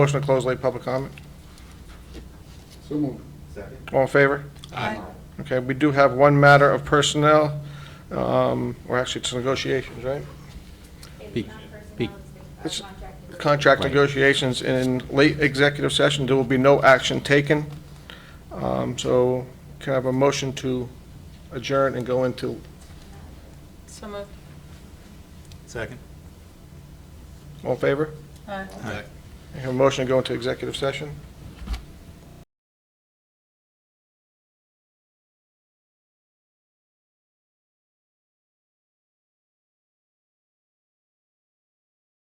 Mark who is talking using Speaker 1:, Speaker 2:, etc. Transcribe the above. Speaker 1: Motion to close late public comment.
Speaker 2: So moved.
Speaker 1: All in favor? Aye. Okay, we do have one matter of personnel, um, or actually it's negotiations, right?
Speaker 3: Be-
Speaker 4: It's not
Speaker 3: be-
Speaker 4: personnel,
Speaker 1: It's-
Speaker 4: it's the uh, contract.
Speaker 1: Contract
Speaker 3: Right.
Speaker 1: negotiations in late executive session, there will be no action taken. Um, So can I have a motion to adjourn and go into,
Speaker 5: So moved.
Speaker 6: Second.
Speaker 1: all in favor?
Speaker 5: Aye.
Speaker 1: I have a motion to go into executive session.